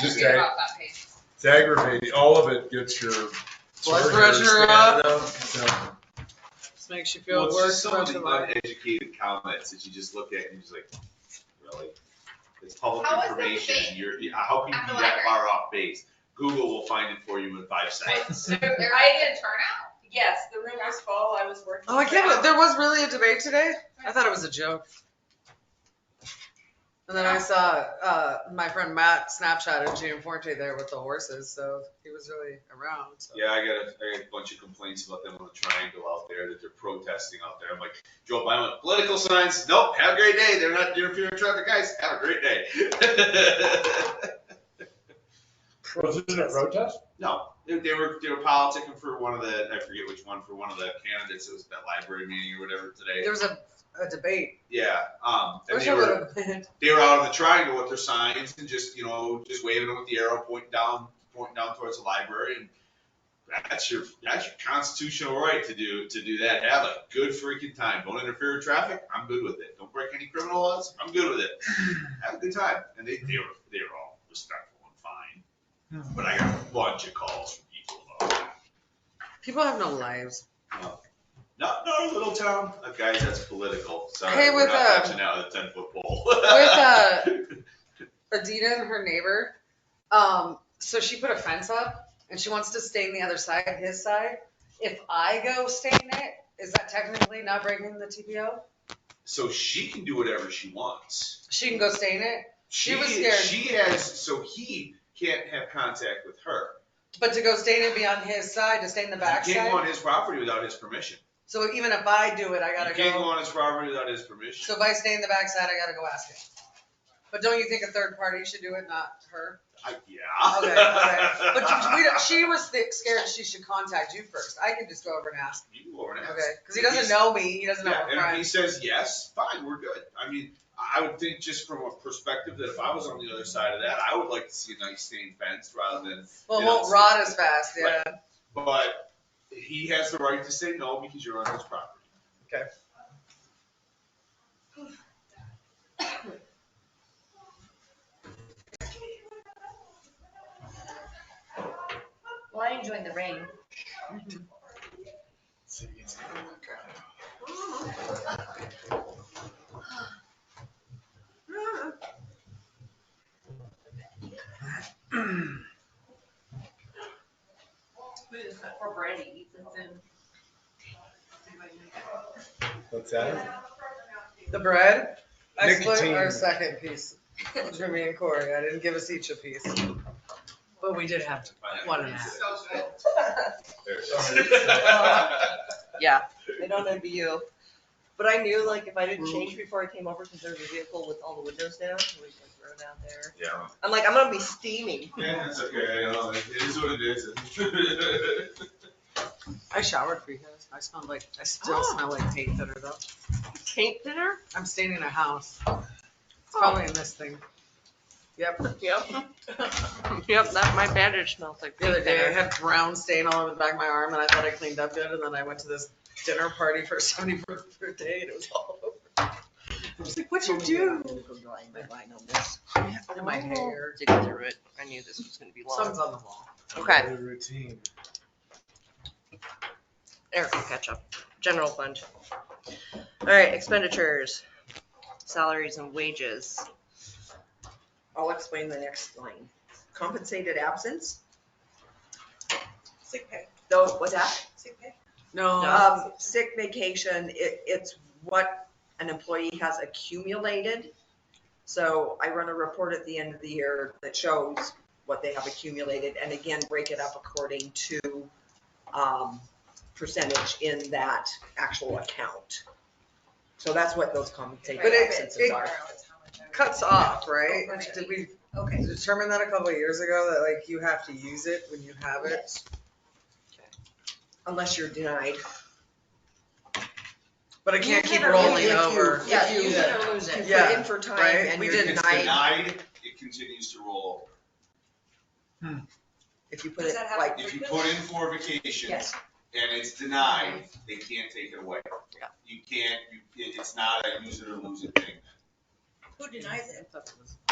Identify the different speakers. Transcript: Speaker 1: just
Speaker 2: You're
Speaker 1: ag-
Speaker 2: off that page.
Speaker 1: it's aggravating, all of it gets your.
Speaker 3: Blood pressure up.
Speaker 1: Yeah.
Speaker 3: Just makes you
Speaker 4: Well,
Speaker 3: feel
Speaker 4: it's just
Speaker 3: worse
Speaker 4: some of
Speaker 3: about
Speaker 4: the
Speaker 3: your life.
Speaker 4: uneducated comments that you just look at and you're just like, really? It's public
Speaker 2: How is that
Speaker 4: information,
Speaker 2: debate?
Speaker 4: you're, yeah, how can you
Speaker 2: At
Speaker 4: be
Speaker 2: the
Speaker 4: that
Speaker 2: library?
Speaker 4: far off base? Google will find it for you in five seconds.
Speaker 2: Was there a good turnout?
Speaker 5: Yes, the room was full, I was working.
Speaker 3: Oh, I can't, believe- there was really a debate today? I thought it was a joke. And then I saw, uh, my friend Matt Snapchat of Gina Forte there with the horses, so he was really around, so.
Speaker 4: Yeah, I got a, I got a bunch of complaints about them on the triangle out there that they're protesting out there. I'm like, Joe Biden, went, political signs, nope, have a great day. They're not interfering with traffic, guys. Have a great day.
Speaker 6: Was it a road test?
Speaker 4: no, they, they were they were politicking for one of the I forget which one for one of the candidates. It was at that library meeting or whatever today.
Speaker 3: There was a, a debate.
Speaker 4: Yeah, um,
Speaker 3: I
Speaker 4: and
Speaker 3: wish
Speaker 4: they
Speaker 3: I
Speaker 4: were
Speaker 3: would've been.
Speaker 4: they were out of the triangle with their signs and just, you know, just waving them with the arrow pointing down, pointing down towards the library. And that's your that's your constitutional right to do to do that. Have a good freaking time. Don't interfere with traffic. I'm good with it. Don't break any criminal laws. I'm good with it. Have a good time. And they, they were they were all respectful and
Speaker 3: Oh.
Speaker 4: fine. But I got a bunch of calls from people about that.
Speaker 3: People have no lives.
Speaker 4: Not, not a little town. Uh, guys, that's political. Sorry,
Speaker 3: Hey,
Speaker 4: we're
Speaker 3: with,
Speaker 4: not
Speaker 3: uh,
Speaker 4: touching out of the ten foot pole.
Speaker 3: With, uh, Adina and her neighbor, um, so she put a fence up and she wants to stain the other side, his side. If I go stain it, is that technically not breaking the TPO?
Speaker 4: so she can do whatever she wants.
Speaker 3: She can go stain it,
Speaker 4: She,
Speaker 3: was scared.
Speaker 4: She has, so he can't have contact with her.
Speaker 3: but to go stain it be on his side, to stain the
Speaker 4: You can't go
Speaker 3: backside.
Speaker 4: on his property without his permission.
Speaker 3: So even if I do it, I
Speaker 4: You
Speaker 3: gotta
Speaker 4: can't go
Speaker 3: go.
Speaker 4: on his property without his permission.
Speaker 3: So if I stain the backside, I gotta go ask him. But don't you think a third party should do it, not her?
Speaker 4: I, yeah.
Speaker 3: Okay, okay. But you- we don't- she was thi- scared she should contact you first. I can just go over and ask.
Speaker 4: You can go over and ask.
Speaker 3: Okay, because he
Speaker 4: If
Speaker 3: doesn't
Speaker 4: he's-
Speaker 3: know me, he doesn't know
Speaker 4: Yeah,
Speaker 3: my
Speaker 4: and if he
Speaker 3: friends.
Speaker 4: says yes, fine, we're good. I mean, I I would think just from a perspective that if I was on the other side of that, I would like to see a nice stained fence rather than,
Speaker 3: Well, it
Speaker 4: you know,
Speaker 3: won't rot as fast, yeah.
Speaker 4: but he has the right to say no because you're on his property.
Speaker 7: Well, I enjoyed the rain.
Speaker 5: For Brandy, eat this in.
Speaker 6: What's that?
Speaker 3: The bread, I split
Speaker 6: Nicotine.
Speaker 3: our second piece, between me and Corey, I didn't give us each a piece. But we did have one and a half. Yeah.
Speaker 5: I don't envy you, but I knew like if I didn't change before I came over, because there was a vehicle with all the windows down, so we just rode out there.
Speaker 4: Yeah.
Speaker 5: I'm like, I'm gonna be steaming.
Speaker 4: Yeah, it's okay, you know, it is what it is.
Speaker 3: I showered for you guys, I smelled like, I still
Speaker 5: Oh.
Speaker 3: smell like paint thinner though.
Speaker 5: Paint thinner?
Speaker 3: I'm staining a house. It's probably in this thing. Yep,
Speaker 5: Yep. Yep, that, my bandage smells like
Speaker 3: the other day I had brown stain all over the back of my arm and I thought I cleaned up good and then I went to this dinner party for somebody's birthday and it was all over. I was like, what'd you do? And
Speaker 5: Oh.
Speaker 3: my hair.
Speaker 5: Dig through it. I knew this was gonna be
Speaker 3: Something's on the wall.
Speaker 5: Okay.
Speaker 6: Routine.
Speaker 5: Eric will catch up. General fund. All right, expenditures, salaries and wages. I'll explain the next line. Compensated absence?
Speaker 7: Sick pay,
Speaker 5: Those, what's that?
Speaker 7: sick pay.
Speaker 3: No,
Speaker 5: Um, sick vacation, it, it's what an employee has accumulated. So I run a report at the end of the year that shows what they have accumulated and again, break it up according to, um, percentage in that actual account. So that's what those compensated
Speaker 3: But it-
Speaker 5: absences
Speaker 3: it-
Speaker 5: are. Oh,
Speaker 3: cuts off, right?
Speaker 7: Right.
Speaker 3: Did we
Speaker 7: Okay,
Speaker 3: determine that a couple of years ago that like you have to use it when you have it?
Speaker 5: Unless you're denied.
Speaker 3: But it can't
Speaker 7: You
Speaker 3: keep
Speaker 7: can or
Speaker 3: rolling
Speaker 7: you- if you-
Speaker 3: over.
Speaker 7: yeah,
Speaker 5: If you-
Speaker 7: use it or lose
Speaker 5: You
Speaker 7: it.
Speaker 3: Yeah,
Speaker 5: put in for time
Speaker 3: right?
Speaker 5: and
Speaker 3: We
Speaker 5: you're
Speaker 4: If
Speaker 3: did
Speaker 4: it's
Speaker 5: denied.
Speaker 4: denied, it continues to roll
Speaker 5: If you put
Speaker 7: Does
Speaker 5: it
Speaker 7: that happen?
Speaker 5: like,
Speaker 4: over. If you put in for a vacation and
Speaker 7: yes,
Speaker 4: it's denied, they can't take it away.
Speaker 5: Yeah.
Speaker 4: You can't, you, it- it's not a use it or lose it thing.
Speaker 7: who denies it?